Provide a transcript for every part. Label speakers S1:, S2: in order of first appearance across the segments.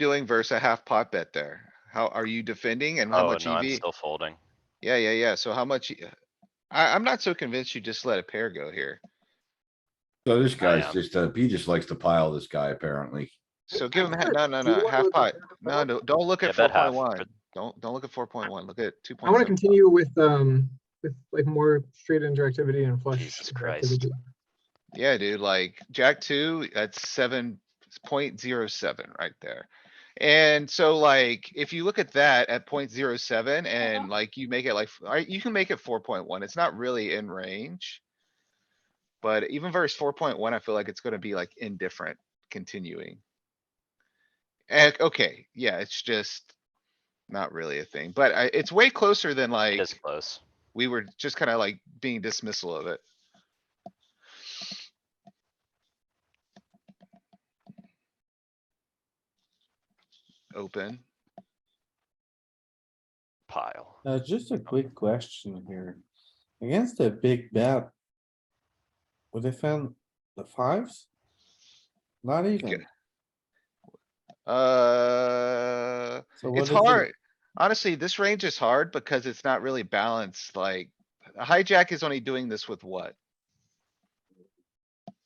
S1: doing versus a half pot bet there? How are you defending and how
S2: Oh,
S1: much
S2: no, I'm
S1: EV?
S2: still folding.
S1: Yeah, yeah, yeah. So how much? e, I, I'm not so convinced you just let a pair go here.
S3: So this guy's
S2: am.
S3: just, uh, he just likes to pile this guy apparently.
S1: So give him, no, no,
S4: Do you
S1: no,
S4: wanna
S1: half
S4: look
S1: pot.
S4: at half
S1: No,
S4: pot?
S1: no, don't look
S2: Yeah,
S1: at four
S2: bet half.
S1: point
S2: but
S1: one. Don't, don't look at four point one. Look at two
S4: I
S1: point
S4: wanna
S1: seven.
S4: continue with, um, with like more straight interactivity and flush.
S2: Jesus Christ.
S4: interactivity.
S1: Yeah, dude, like Jack two, that's seven point zero seven right there. And so like, if you look at that at point zero seven and like you make it like, alright, you can make it four point one. It's not really in range. But even verse four point one, I feel like it's gonna be like indifferent continuing. And, okay, yeah, it's just not really a thing, but I, it's way closer than
S2: It
S1: like,
S2: is close.
S1: we were just kinda like being dismissal of it. Open.
S2: Pile.
S5: Uh, just a quick question here. Against the big bet. Would defend the fives? Not even.
S1: Uh,
S5: So what
S1: it's
S5: is it?
S1: hard. Honestly, this range is hard because it's not really balanced, like a hijack is only doing this with what?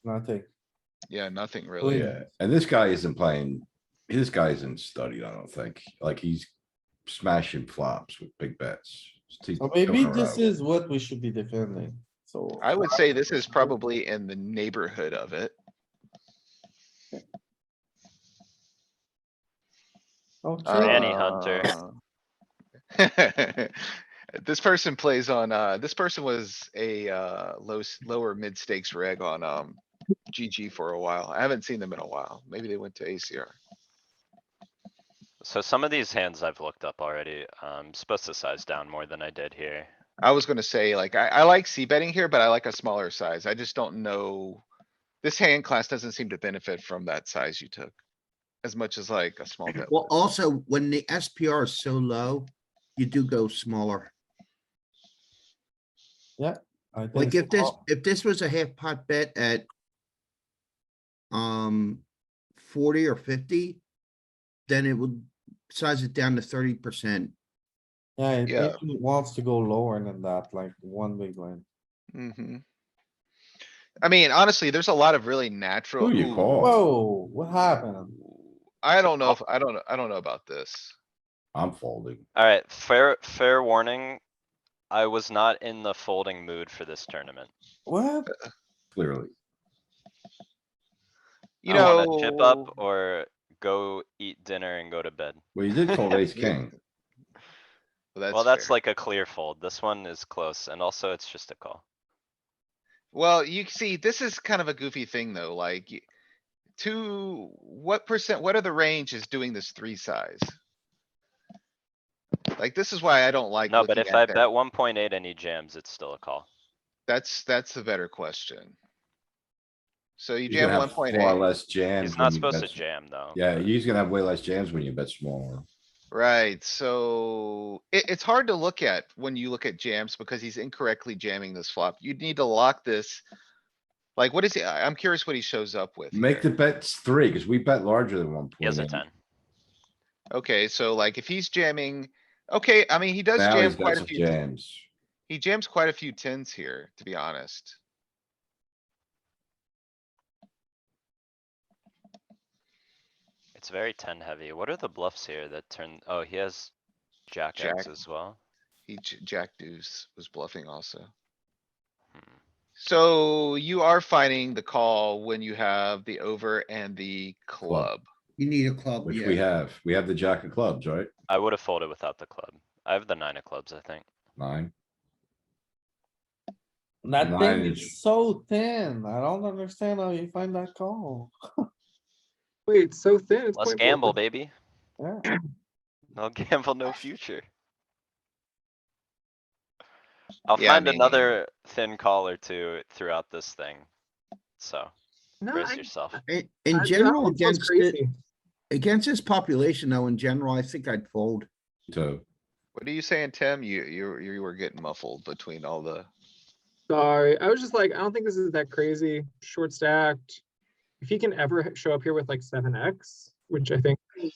S5: Nothing.
S1: Oh, Yeah, nothing really.
S5: Oh, yeah.
S3: Yeah, and this guy isn't playing, this guy isn't studied, I don't think. Like he's smashing flops with big bets. He's
S5: So maybe
S3: going
S5: this
S3: around.
S5: is what we should be defending, so.
S1: I would say this is probably in the neighborhood of it.
S5: Okay,
S2: Manny Hunter.
S1: Uh, This person plays on, uh, this person was a, uh, low, s- lower mid stakes reg on, um, GG for a while. I haven't seen them in a while. Maybe they went to ACR.
S2: So some of these hands I've looked up already. I'm supposed to size down more than I did here.
S1: I was gonna say, like, I, I like C betting here, but I like a smaller size. I just don't know. This hand class doesn't seem to benefit from that size you took. As much as like a small bet.
S6: Well,
S1: would.
S6: also, when the SPR is so low, you do go smaller.
S5: I think
S6: Like
S5: so.
S6: if this, if this was a half pot bet at um, forty or fifty, then it would size it down to thirty percent.
S5: Yeah, it
S1: Yeah.
S5: even wants to go lower than that, like one big line.
S1: Mhm. I mean, honestly, there's a lot of really natural.
S3: Who you
S1: ooh,
S5: Oh.
S3: call?
S5: Whoa, what happened?
S1: I don't
S2: Oh.
S1: know if, I don't, I don't know about this.
S3: I'm folding.
S2: Alright, fair, fair warning. I was not in the folding mood for this tournament.
S5: What?
S3: Clearly,
S1: You
S2: I wanna chip
S1: know,
S2: up or go eat dinner and go to bed.
S3: well, you did fold ace king.
S2: Well, that's
S1: fair.
S2: like a clear fold. This one is close and also it's just a call.
S1: Well, you see, this is kind of a goofy thing though, like. y- Two, what percent, what are the ranges doing this three size? Like, this is why I don't like.
S2: No, but
S1: looking at
S2: if I
S1: that.
S2: bet one point eight and he jams, it's still a call.
S1: That's, that's the better question. So you
S3: He's gonna
S1: jam one
S3: have
S1: point
S3: far
S1: eight,
S3: less jams.
S2: He's
S3: when
S2: not
S3: you
S2: supposed to
S3: bet s-
S2: jam though.
S3: Yeah, he's gonna have way less jams when you bet smaller.
S1: right? So it, it's hard to look at when you look at jams because he's incorrectly jamming this flop. You'd need to lock this. Like, what is he? I- I'm curious what he shows up with.
S3: Make the
S1: here.
S3: bets three, cuz we bet larger than one point.
S2: He has a ten.
S1: Okay, so like if he's jamming, okay, I mean, he does
S3: Now
S1: jam
S3: he's got
S1: quite a
S3: some
S1: few.
S3: jams.
S1: He jams quite a few tens here, to be honest.
S2: It's very ten heavy. What are the bluffs here that turn? Oh, he has jack
S1: Jack.
S2: X as well.
S1: He, j- jack deuce was bluffing also.
S2: Hmm.
S1: So you are finding the call when you have the over and the club.
S6: You need a club,
S3: Which we
S6: yeah.
S3: have, we have the jack of clubs, right?
S2: I would have folded without the club. I have the nine of clubs, I think.
S3: Nine.
S5: That
S3: Mine
S5: thing
S3: is-
S5: is so thin. I don't understand how you find that call.
S4: Wait, it's so thin. it's
S2: Let's
S4: 0.4%.
S2: gamble, baby.
S5: Yeah.
S2: No gamble, no future. I'll
S1: Yeah, I
S2: find
S1: mean-
S2: another thin call or two throughout this thing. So
S4: No,
S2: brace
S4: I-
S2: yourself.
S6: In-
S4: I-
S6: In
S4: that
S6: general,
S4: one sounds
S6: against, the-
S4: crazy.
S6: against this population though, in general, I think I'd fold.
S3: So,
S1: What are you saying, Tim? You, you, you were getting muffled between all the,
S4: Sorry, I was just like, I don't think this is that crazy, short stacked. If he can ever h- show up here with like seven X, which I think